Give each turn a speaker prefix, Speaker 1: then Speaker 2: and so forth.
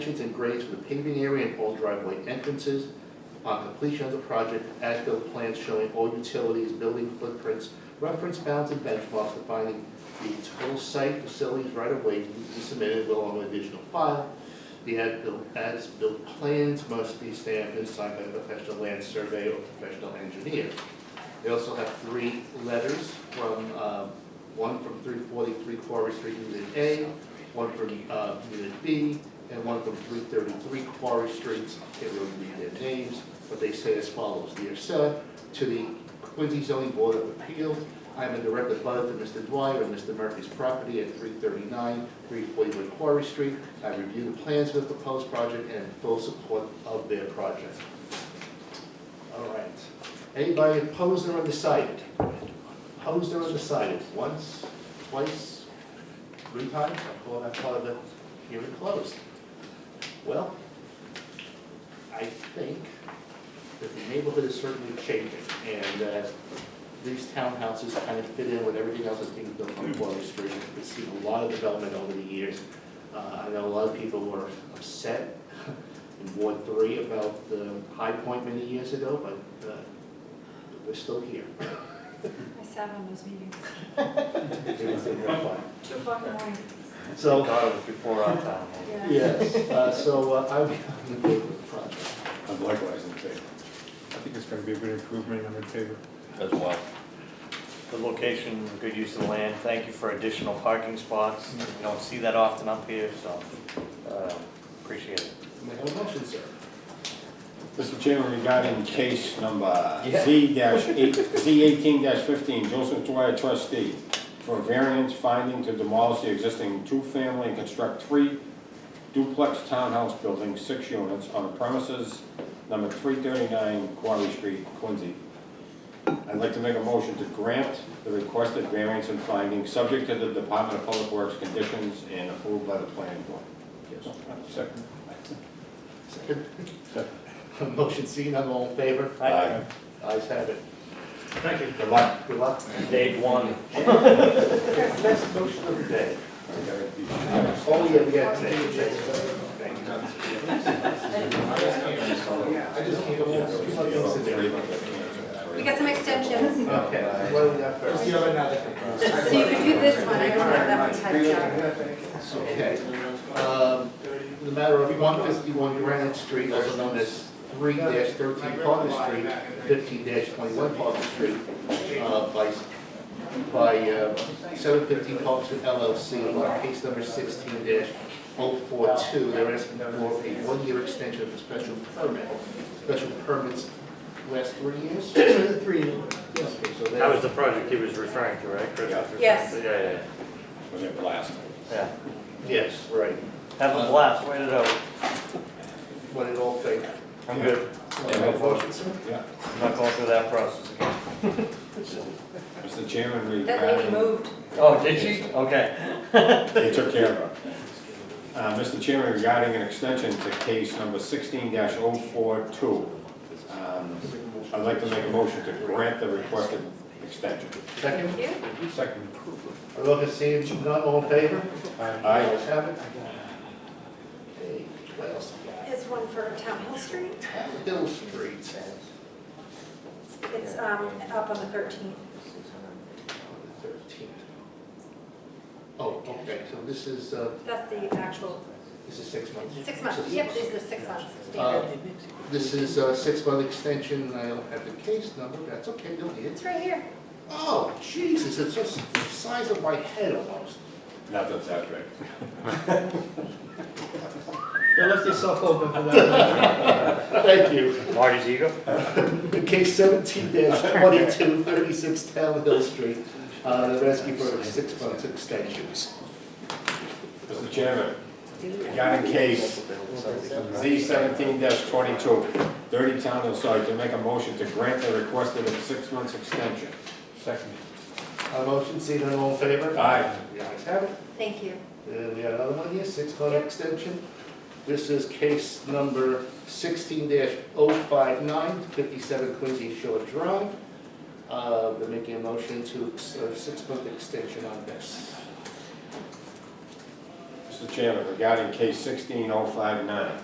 Speaker 1: Conditions and grades for the paving area and all driveway entrances. On completion of the project, as-built plans showing all utilities, building footprints, reference bounds and benchmarks defining the total site, facilities, right of way to be submitted along with additional file. The as-built, as-built plans must be stamped and signed by a professional land surveyor or professional engineer. They also have three letters from, uh, one from 343 Quarry Street, Unit A, one from uh, Unit B, and one from 333 Quarry Streets. I can't really read their names, but they say as follows. Dear sir, to the Quincy zoning board of appeals, I am a direct abutter to Mr. Dwyer and Mr. Murphy's property at 339, 341 Quarry Street. I review the plans of the proposed project and in full support of their project. All right. Anybody opposed or undecided? Opposed or undecided? Once, twice, three times? I call that part of the hearing closed. Well, I think that the neighborhood is certainly changing, and uh, these townhouses kind of fit in with everything else that's being built on Water Street. We've seen a lot of development over the years. Uh, I know a lot of people were upset in Ward Three about the High Point many years ago, but uh, we're still here.
Speaker 2: I sat on those meetings,
Speaker 1: It was a real fun.
Speaker 2: two o'clock in the morning.
Speaker 1: So,
Speaker 3: God, it was before our time.
Speaker 1: yes, uh, so uh, I'm I'm in favor of the project.
Speaker 4: I'm Uh, likewise in favor. I think it's gonna be a good improvement, I'm in favor.
Speaker 5: as well.
Speaker 3: Good location, good use of the land, thank you for additional parking spots, we don't see that often up here, so, uh, appreciate it.
Speaker 1: May I have a motion, sir?
Speaker 4: Mr. Chairman, regarding case number
Speaker 3: Yeah.
Speaker 4: Z dash eight, Z eighteen dash fifteen, Joseph Dwyer trustee, for variance finding to demolish the existing two-family and construct three duplex townhouse buildings, six units, on premises number three thirty-nine Quarry Street, Quincy. I'd like to make a motion to grant the requested variance and finding, subject to the Department of Public Works conditions and approved by the planning board.
Speaker 1: Yes.
Speaker 4: Second.
Speaker 1: Second. Motion seen, I'm all in favor?
Speaker 4: Aye.
Speaker 1: Ayes have it.
Speaker 3: Thank you.
Speaker 4: Good luck.
Speaker 1: Good luck.
Speaker 3: Dave one.
Speaker 1: Best motion of the day.
Speaker 4: Okay.
Speaker 1: Oh, yeah, we got to do it, Jason. Thank you. I just can't, there's some things in there.
Speaker 2: We got some extensions,
Speaker 1: Okay, what do we got first?
Speaker 2: so you could do this one, I don't have that one typed out.
Speaker 1: Okay.
Speaker 6: Uh,
Speaker 1: Um, The matter of one fifty-one Granite Street, also known as three thirteen Parker Street, fifteen twenty-one Parker Street, uh, by, by uh, seven fifteen Parker Street LLC, on case number sixteen 42 They're asking for a one-year extension of the special permit. Special permits last three years? Three years. Okay, so
Speaker 3: That was
Speaker 1: that's,
Speaker 3: the project he was referring to, right, Chris?
Speaker 4: Yeah.
Speaker 2: Yes.
Speaker 3: Yeah, yeah,
Speaker 4: Was it blasted?
Speaker 3: yeah,
Speaker 1: yes, right,
Speaker 3: yeah. Have a blast, wait it out.
Speaker 1: what it all think.
Speaker 3: I'm good,
Speaker 4: Yeah.
Speaker 1: Motion, sir?
Speaker 4: Yeah.
Speaker 3: I'm not going through that process again.
Speaker 4: Mr. Chairman,
Speaker 2: That lady
Speaker 4: regarding,
Speaker 2: moved.
Speaker 3: Oh, did she? Okay.
Speaker 4: they took care of her. Uh, Mr. Chairman, regarding an extension to case number sixteen 42 um, I'd like to make a motion to grant the requested extension.
Speaker 1: Second?
Speaker 2: Thank you.
Speaker 4: Second.
Speaker 1: Are those that see it, none, all in favor?
Speaker 4: Aye.
Speaker 1: Ayes have it. Okay, what else?
Speaker 2: It's one for Town Hill Street,
Speaker 1: Hill Street.
Speaker 2: it's um, up on the thirteenth.
Speaker 1: Thirteenth. Oh, okay, so this is, uh,
Speaker 2: That's the actual,
Speaker 1: this is six months.
Speaker 2: six months, yep, this is the six months
Speaker 1: Uh,
Speaker 2: standard.
Speaker 1: This is a six-month extension, I don't have the case number, that's okay, don't need it.
Speaker 2: It's right here.
Speaker 1: Oh, Jesus, it's just the size of my head almost.
Speaker 4: Not that that's right.
Speaker 6: You left yourself open for that.
Speaker 1: Thank you.
Speaker 3: Marty's ego?
Speaker 1: Case seventeen dash twenty-two, thirty-six Town Hill Street, uh, they're asking for a six-month extension.
Speaker 4: Mr. Chairman, regarding case Z seventeen 22 30 Town Hill, sorry, to make a motion to grant the requested six months extension. Second.
Speaker 1: Uh, motion, seeing none, all in favor?
Speaker 4: Aye.
Speaker 1: The ayes have it.
Speaker 2: Thank you.
Speaker 1: And we got another one here, six-month extension. This is case number sixteen 59 57 Quincy Shore Drive. Uh, we're making a motion to, ex- uh, six-month extension on this.
Speaker 4: Mr. Chairman, regarding case sixteen oh five nine.